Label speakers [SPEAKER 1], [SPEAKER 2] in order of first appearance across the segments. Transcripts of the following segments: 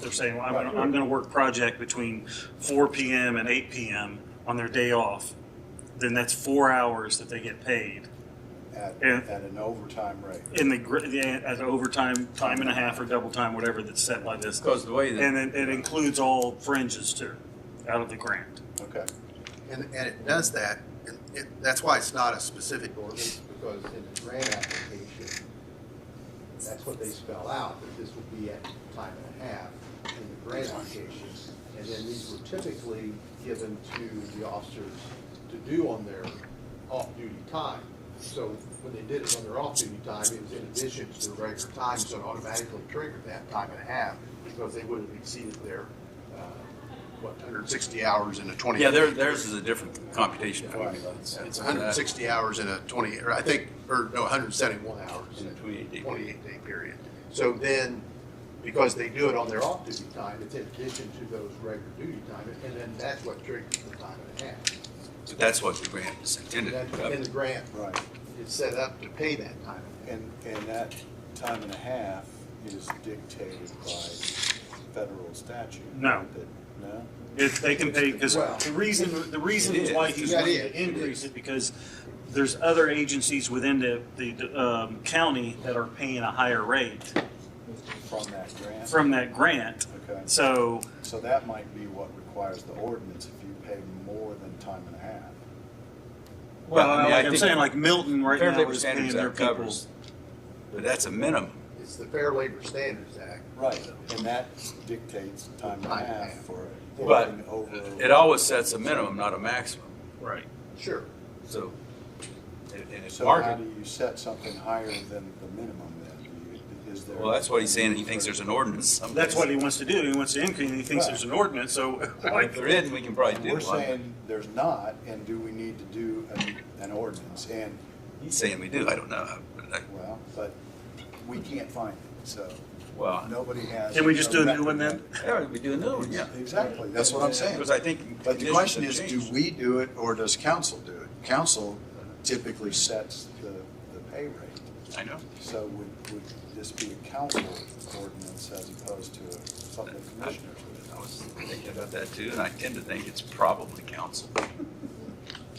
[SPEAKER 1] they're saying, well, I'm gonna, I'm gonna work project between four PM and eight PM on their day off, then that's four hours that they get paid
[SPEAKER 2] at,
[SPEAKER 1] Yeah.
[SPEAKER 2] at an overtime rate.
[SPEAKER 1] in the, gr- the- as overtime, time and a half or double time, whatever that's set by this.
[SPEAKER 3] Because the way
[SPEAKER 1] And
[SPEAKER 3] that,
[SPEAKER 1] it, it includes all fringes too, out of the grant.
[SPEAKER 2] Okay.
[SPEAKER 4] And, and it does that, and it, that's why it's not a specific ordinance, because in the grant application, that's what they spell out, that this will be at time and a half in the grant application. And then these were typically given to the officers to do on their off-duty time. So when they did it on their off-duty time, it was in addition to their regular time, so it automatically triggered that time and a half, because they would have exceeded their, uh, what, hundred and sixty hours in a twenty.
[SPEAKER 3] yeah, there, theirs is a different computation formula.
[SPEAKER 4] It's 160 hours in a 20, or I think, or no, 171 hours in
[SPEAKER 3] In a 28
[SPEAKER 4] a
[SPEAKER 3] day
[SPEAKER 4] 28-day period. So then, because they do it on their off-duty time, it's in addition to those regular duty time, and then that's what triggers the time and a half.
[SPEAKER 3] But that's what the grant is intended to
[SPEAKER 4] That's in
[SPEAKER 3] cover.
[SPEAKER 4] the grant,
[SPEAKER 2] Right.
[SPEAKER 4] it's set up to pay that time. and a half.
[SPEAKER 2] And, and that time and a half is dictated by federal statute.
[SPEAKER 1] No.
[SPEAKER 2] That- No?
[SPEAKER 1] If they can pay, because
[SPEAKER 4] Well,
[SPEAKER 1] the reason, the
[SPEAKER 3] it
[SPEAKER 1] reason
[SPEAKER 3] is.
[SPEAKER 1] why he's
[SPEAKER 4] Yeah, it
[SPEAKER 1] wanting
[SPEAKER 4] is.
[SPEAKER 1] to increase it, because there's other agencies within the, the, um, county that are paying a higher rate
[SPEAKER 2] From that grant?
[SPEAKER 1] from that grant.
[SPEAKER 2] Okay.
[SPEAKER 1] So,
[SPEAKER 2] So that might be what requires the ordinance if you pay more than time and a half.
[SPEAKER 1] well,
[SPEAKER 3] Well, I mean, I
[SPEAKER 1] like I'm
[SPEAKER 3] think
[SPEAKER 1] saying, like Milton right
[SPEAKER 3] Fair
[SPEAKER 1] now
[SPEAKER 3] Labor
[SPEAKER 1] is paying
[SPEAKER 3] Standards
[SPEAKER 1] their
[SPEAKER 3] Act
[SPEAKER 1] people.
[SPEAKER 3] covers, but that's a minimum.
[SPEAKER 4] It's the Fair Labor Standards Act.
[SPEAKER 2] Right. And that dictates time and a half for
[SPEAKER 3] But
[SPEAKER 2] anything over.
[SPEAKER 3] It always sets a minimum, not a maximum,
[SPEAKER 1] Right.
[SPEAKER 4] Sure.
[SPEAKER 3] so. and- And it's
[SPEAKER 2] So how
[SPEAKER 3] market,
[SPEAKER 2] do you set something higher than the minimum then? Do you- Is there?
[SPEAKER 3] well, that's what he's saying, he thinks there's an ordinance someplace.
[SPEAKER 1] That's what he wants to do. He wants to increase, and he thinks
[SPEAKER 2] Right.
[SPEAKER 1] there's an ordinance, so
[SPEAKER 3] If
[SPEAKER 1] like,
[SPEAKER 3] there isn't, we can probably do
[SPEAKER 2] We're
[SPEAKER 3] one.
[SPEAKER 2] saying there's not, and do we need to do an, an ordinance? And,
[SPEAKER 3] He's saying we do, I don't know. but I-
[SPEAKER 2] well, but we can't find it, so
[SPEAKER 3] Well,
[SPEAKER 2] nobody has.
[SPEAKER 1] can we just do a new
[SPEAKER 2] record.
[SPEAKER 1] one then?
[SPEAKER 3] yeah, we do another one, yeah.
[SPEAKER 2] Exactly, that's what I'm saying.
[SPEAKER 3] Because I think.
[SPEAKER 2] But the
[SPEAKER 3] conditions
[SPEAKER 2] question
[SPEAKER 3] have
[SPEAKER 2] is, do
[SPEAKER 3] changed.
[SPEAKER 2] we do it or does council do it? Council typically sets the, the pay rate.
[SPEAKER 3] I know.
[SPEAKER 2] So would, would this be a council ordinance as opposed to something the commissioners would
[SPEAKER 3] I was thinking about that too, and I tend to think it's probably council.
[SPEAKER 2] do?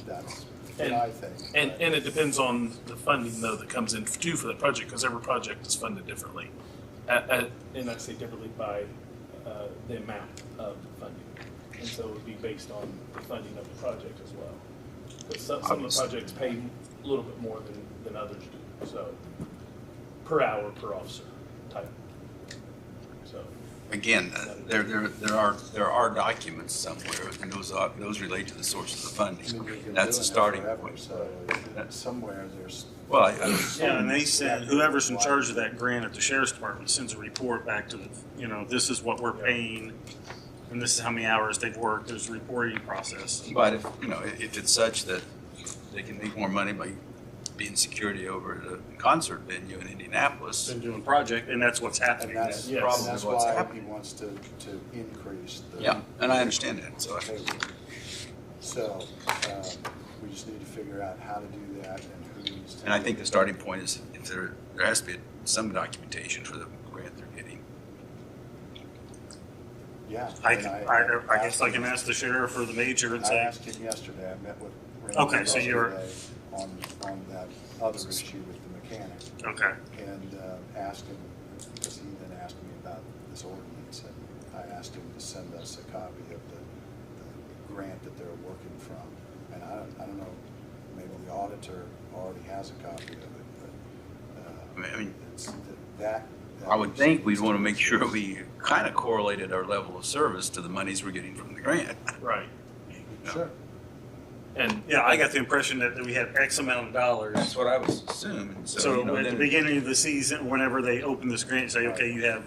[SPEAKER 2] That's what I think.
[SPEAKER 5] And,
[SPEAKER 2] but-
[SPEAKER 5] and it depends on the funding though that comes in due for the project, because every project is funded differently. At, at, and I say differently by, uh, the amount of funding. And so it would be based on the funding of the project as well. But some, some of the
[SPEAKER 3] Obviously.
[SPEAKER 5] projects pay a little bit more than, than others do, so. Per hour, per officer type. So,
[SPEAKER 3] Again, uh, there, there, there are, there are documents somewhere, and those are, those relate to the sources of
[SPEAKER 2] I mean, we've
[SPEAKER 3] funding.
[SPEAKER 2] been doing
[SPEAKER 3] That's the
[SPEAKER 2] it
[SPEAKER 3] starting
[SPEAKER 2] forever,
[SPEAKER 3] point.
[SPEAKER 2] So it- somewhere there's.
[SPEAKER 3] Well, I- I-
[SPEAKER 1] Yeah, and they send, whoever's in charge of that grant at the sheriff's department sends a report back to, the you know, this is what we're paying, and this is how many hours they've worked, there's a reporting process.
[SPEAKER 3] but if, you know, if it's such that they can make more money by being security over at a concert venue in Indianapolis,
[SPEAKER 1] Been doing project, and that's what's
[SPEAKER 2] And
[SPEAKER 1] happening.
[SPEAKER 2] that's,
[SPEAKER 5] Yes.
[SPEAKER 2] and that's
[SPEAKER 3] Probably what's
[SPEAKER 2] why he
[SPEAKER 3] happening.
[SPEAKER 2] wants to, to increase the.
[SPEAKER 3] yeah, and I understand that, so. I-
[SPEAKER 2] pay rate. So, um, we just need to figure out how to do that and who needs to.
[SPEAKER 3] And I think the starting point is if there, there has to be some documentation for the grant they're getting.
[SPEAKER 2] Yeah.
[SPEAKER 1] I,
[SPEAKER 2] and
[SPEAKER 1] can- I, I guess I can ask the sheriff or the major and
[SPEAKER 2] I
[SPEAKER 1] say,
[SPEAKER 2] asked him yesterday, I met with. Randy
[SPEAKER 1] Okay, so you're-
[SPEAKER 2] yesterday On, on that other issue with the mechanic.
[SPEAKER 1] okay,
[SPEAKER 2] and uh, asked him, because he then asked me about this ordinance, and I asked him to send us a copy of the, the grant that they're working from. And I, don't- I don't know, maybe the auditor already has a copy of it, but,
[SPEAKER 3] I
[SPEAKER 2] uh,
[SPEAKER 3] mean- I mean,
[SPEAKER 2] it's th- that. that
[SPEAKER 3] I would
[SPEAKER 2] was-
[SPEAKER 3] think we'd want to make sure we kind of correlated our level of service to the monies we're getting from the grant.
[SPEAKER 5] right,
[SPEAKER 2] Sure,
[SPEAKER 5] and.
[SPEAKER 1] yeah, I got the impression that we had X amount of dollars.
[SPEAKER 3] That's what I was assuming. So, you
[SPEAKER 1] So
[SPEAKER 3] know,
[SPEAKER 1] at the
[SPEAKER 3] then,
[SPEAKER 1] beginning of the season, whenever they open this grant, say, okay, you have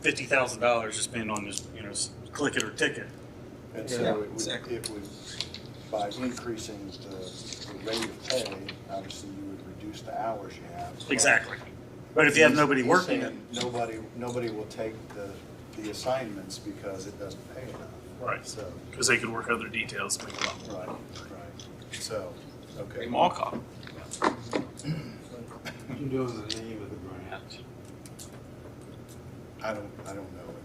[SPEAKER 1] fifty thousand dollars to spend on this, you know, s- click it or ticket.
[SPEAKER 2] and
[SPEAKER 3] Yeah,
[SPEAKER 2] so it would,
[SPEAKER 3] exactly.
[SPEAKER 2] it would, by increasing the, the rate of pay, obviously you would reduce the hours you have.
[SPEAKER 1] Exactly. But if you have
[SPEAKER 2] He's-
[SPEAKER 1] nobody
[SPEAKER 2] he's
[SPEAKER 1] working it,
[SPEAKER 2] saying Nobody, nobody will take the, the assignments because it doesn't pay enough.
[SPEAKER 5] Right.
[SPEAKER 2] So,
[SPEAKER 5] Cause they could work other details, make a lot more.
[SPEAKER 2] right, right, so, okay.
[SPEAKER 3] Big mall cop.
[SPEAKER 6] You can do it in the name of the grant.
[SPEAKER 2] I don't, I don't know